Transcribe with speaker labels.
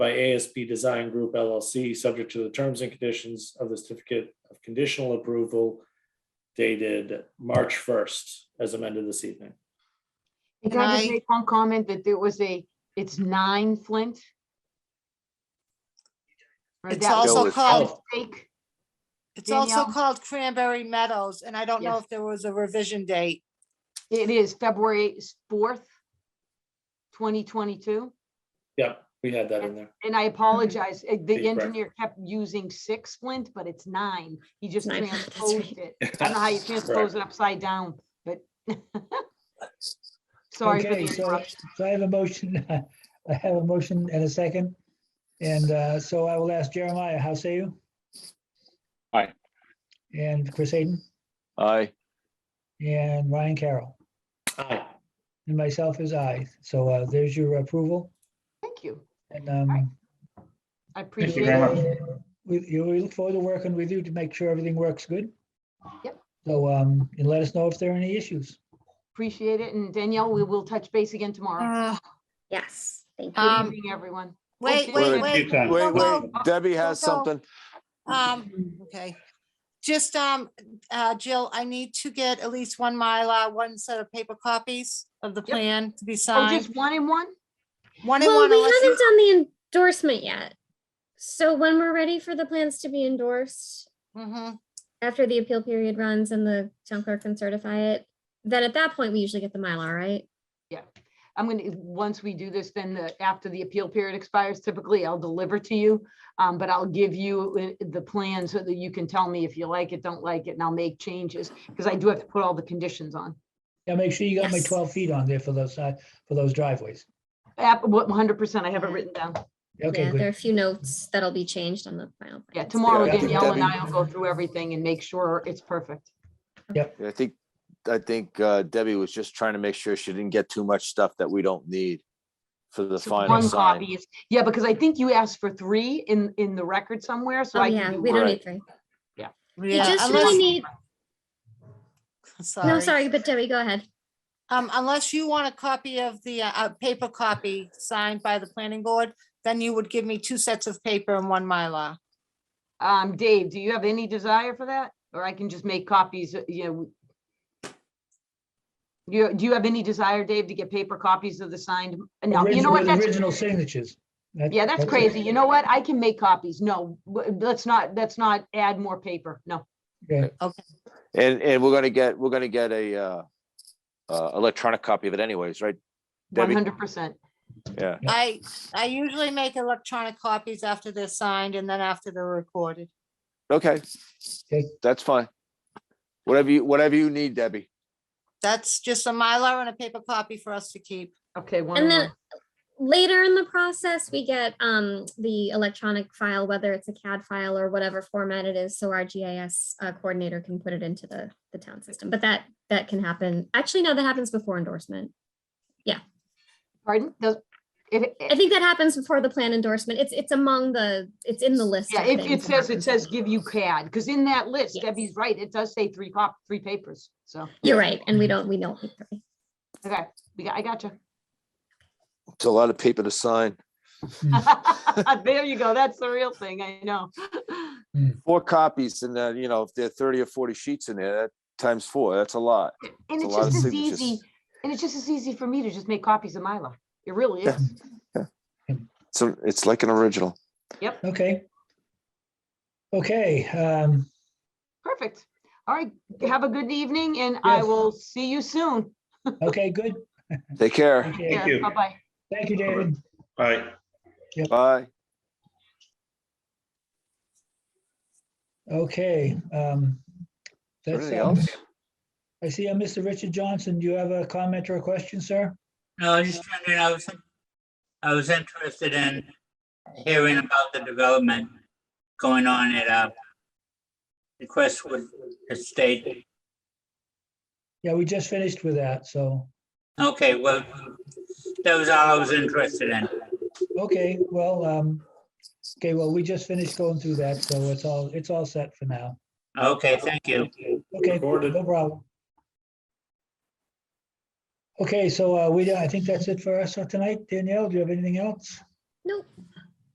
Speaker 1: by ASP Design Group LLC, subject to the terms and conditions of the certificate of conditional approval dated March first, as amended this evening.
Speaker 2: And
Speaker 3: Can I just
Speaker 2: I-
Speaker 3: make one comment that there was a, it's nine Flint? Or
Speaker 2: It's
Speaker 3: that was
Speaker 2: also
Speaker 3: a
Speaker 2: called,
Speaker 1: Oh,
Speaker 3: mistake?
Speaker 2: it's also
Speaker 3: Danielle?
Speaker 2: called Cranberry Meadows, and I don't know
Speaker 3: Yes.
Speaker 2: if there was a revision date.
Speaker 3: It is February fourth, twenty twenty-two,
Speaker 1: Yep, we had that in there.
Speaker 3: and I apologize, eh,
Speaker 1: Be
Speaker 3: the
Speaker 1: correct.
Speaker 3: engineer kept using six Flint, but it's nine. He just
Speaker 4: Nine, that's right.
Speaker 3: transposed it. I don't know how you transpose it upside down, but. Sorry for
Speaker 5: Okay,
Speaker 3: the
Speaker 5: so
Speaker 3: interruption.
Speaker 5: so I have a motion, I have a motion and a second. And uh, so I will ask Jeremiah, how say you?
Speaker 6: Aye.
Speaker 5: And Chris Hayden
Speaker 6: Aye.
Speaker 5: and Ryan Carroll
Speaker 1: Aye.
Speaker 5: and myself is aye. So uh, there's your approval
Speaker 3: Thank you.
Speaker 5: and
Speaker 3: Aye.
Speaker 5: um,
Speaker 3: I appreciate
Speaker 7: very
Speaker 3: it.
Speaker 7: much.
Speaker 5: we, you- we look forward to working with you to make sure everything works good.
Speaker 3: Yep.
Speaker 5: So um, and let us know if there are any issues.
Speaker 3: Appreciate it. And Danielle, we will touch base again tomorrow.
Speaker 2: Uh,
Speaker 4: Yes, thank you.
Speaker 2: Um,
Speaker 3: Good evening, everyone.
Speaker 2: Wait,
Speaker 3: Okay.
Speaker 2: wait,
Speaker 7: Wait,
Speaker 2: wait.
Speaker 7: wait,
Speaker 6: Wait,
Speaker 2: Well,
Speaker 6: wait, Debbie has
Speaker 2: well,
Speaker 6: something.
Speaker 2: Um, okay. Just, um, uh, Jill, I need to get at least one Mylar, one set of paper copies of the plan to be
Speaker 3: Oh,
Speaker 2: signed.
Speaker 3: just one and one?
Speaker 2: One and
Speaker 4: Well,
Speaker 2: one.
Speaker 4: we
Speaker 2: unless
Speaker 4: haven't
Speaker 2: you-
Speaker 4: done the endorsement yet. So when we're ready for the plans to be endorsed,
Speaker 2: Mhm.
Speaker 4: after the appeal period runs and the town clerk can certify it, then at that point, we usually get the Mylar, right?
Speaker 3: I'm gonna, once we do this, then the, after the appeal period expires, typically I'll deliver to you. Um, but I'll give you i- the plan so that you can tell me if you like it, don't like it, and I'll make changes, because I do have to put all the conditions on.
Speaker 5: Yeah, make sure you got my
Speaker 4: Yes.
Speaker 5: 12 feet on there for those, uh, for those driveways.
Speaker 3: App- what- 100%, I have it written down.
Speaker 5: Okay,
Speaker 4: Yeah,
Speaker 5: good.
Speaker 4: There are a few notes that'll be changed on the final.
Speaker 3: Yeah,
Speaker 4: plans.
Speaker 3: tomorrow
Speaker 6: Yeah, I think
Speaker 3: Danielle and
Speaker 6: Debbie-
Speaker 3: I will go through everything and make sure it's perfect.
Speaker 6: I think, I think uh, Debbie was just trying to make sure she didn't get too much stuff that we don't need for the
Speaker 3: So
Speaker 6: final
Speaker 3: one
Speaker 6: sign.
Speaker 3: copy is- Yeah, because I think you asked for three in, in the record somewhere, so
Speaker 4: Oh,
Speaker 3: I. can
Speaker 4: yeah,
Speaker 3: do
Speaker 4: we
Speaker 3: one.
Speaker 4: don't
Speaker 6: Right.
Speaker 4: need three. We
Speaker 2: Yeah,
Speaker 4: just really
Speaker 2: unless,
Speaker 4: need, no, sorry, but Debbie, go ahead.
Speaker 2: Um, unless you want a copy of the, uh, a paper copy signed by the planning board, then you would give me two sets of paper and one Mylar.
Speaker 3: Um, Dave, do you have any desire for that? Or I can just make copies, uh, you know? You, do you have any desire, Dave, to get paper copies of the signed? uh, No, you know
Speaker 5: Original-
Speaker 3: what?
Speaker 5: with
Speaker 3: That's,
Speaker 5: Original signatures. That-
Speaker 3: yeah, that's
Speaker 5: it.
Speaker 3: crazy. You know what? I can make copies. No, w- let's not, let's not add more paper. No.
Speaker 5: Okay.
Speaker 6: And, and we're gonna get, we're gonna get a uh, uh, electronic copy of it anyways, right?
Speaker 3: One
Speaker 6: Debbie,
Speaker 3: hundred percent.
Speaker 6: yeah,
Speaker 5: Yeah.
Speaker 2: I, I usually make electronic copies after they're signed and then after they're recorded.
Speaker 6: okay.
Speaker 5: Okay.
Speaker 6: That's fine. Whatever you, whatever you need, Debbie.
Speaker 2: That's just a Mylar and a paper copy for us to keep.
Speaker 3: Okay, one. and
Speaker 4: And then
Speaker 3: one.
Speaker 4: later in the process, we get um the electronic file, whether it's a CAD file or whatever format it is, so our GIS uh, coordinator can put it into the the town system. But that that can happen. Actually, no, that happens before endorsement.
Speaker 3: Pardon? Does, it, it-
Speaker 4: I think that happens before the plan endorsement. It's it's among the it's in the list.
Speaker 3: yeah,
Speaker 4: of
Speaker 3: it, it
Speaker 4: things that
Speaker 3: says, it
Speaker 4: happens.
Speaker 3: says give you CAD, because in that list,
Speaker 4: Yes.
Speaker 3: Debbie's right, it does say three cop, three papers, so,
Speaker 4: You're right, and we don't we don't need three.
Speaker 3: okay, we got- I got you.
Speaker 6: It's a lot of paper to sign.
Speaker 3: There you go. That's the real thing. I know.
Speaker 6: Four copies and then, you know, if there are thirty or forty sheets in there, that times four, that's a lot.
Speaker 3: And
Speaker 6: It's a
Speaker 3: it's
Speaker 6: lot of
Speaker 3: just as
Speaker 6: signatures.
Speaker 3: easy, and it's just as easy for me to just make copies of Mylar. It really
Speaker 6: Yeah.
Speaker 3: is.
Speaker 6: So it's like an original.
Speaker 5: Okay. Okay, um,
Speaker 3: Perfect. All right. Have a good evening and I
Speaker 5: Yes.
Speaker 3: will see you soon.
Speaker 5: okay, good.
Speaker 6: Take care.
Speaker 5: Okay.
Speaker 3: Yeah,
Speaker 7: you.
Speaker 3: Bye-bye.
Speaker 5: Thank you, David.
Speaker 7: Bye.
Speaker 6: Bye.
Speaker 5: Okay. um, that's,
Speaker 6: Anything
Speaker 5: um,
Speaker 6: else?
Speaker 5: I see, uh, Mr. Richard Johnson, do you have a comment or a question, sir?
Speaker 8: No, I was just wondering, I was, I was interested in hearing about the development going on at, uh, the Crestwood Estate.
Speaker 5: Yeah, we just finished with that, so,
Speaker 8: Okay, well, that was all I was interested in.
Speaker 5: okay, well, um, okay, well, we just finished going through that, so it's all, it's all set for now.
Speaker 8: Okay, thank you.
Speaker 5: Okay,
Speaker 1: Recorded.
Speaker 5: no problem. Okay, so uh, we, I think that's it for us for tonight. Danielle, do you have anything else?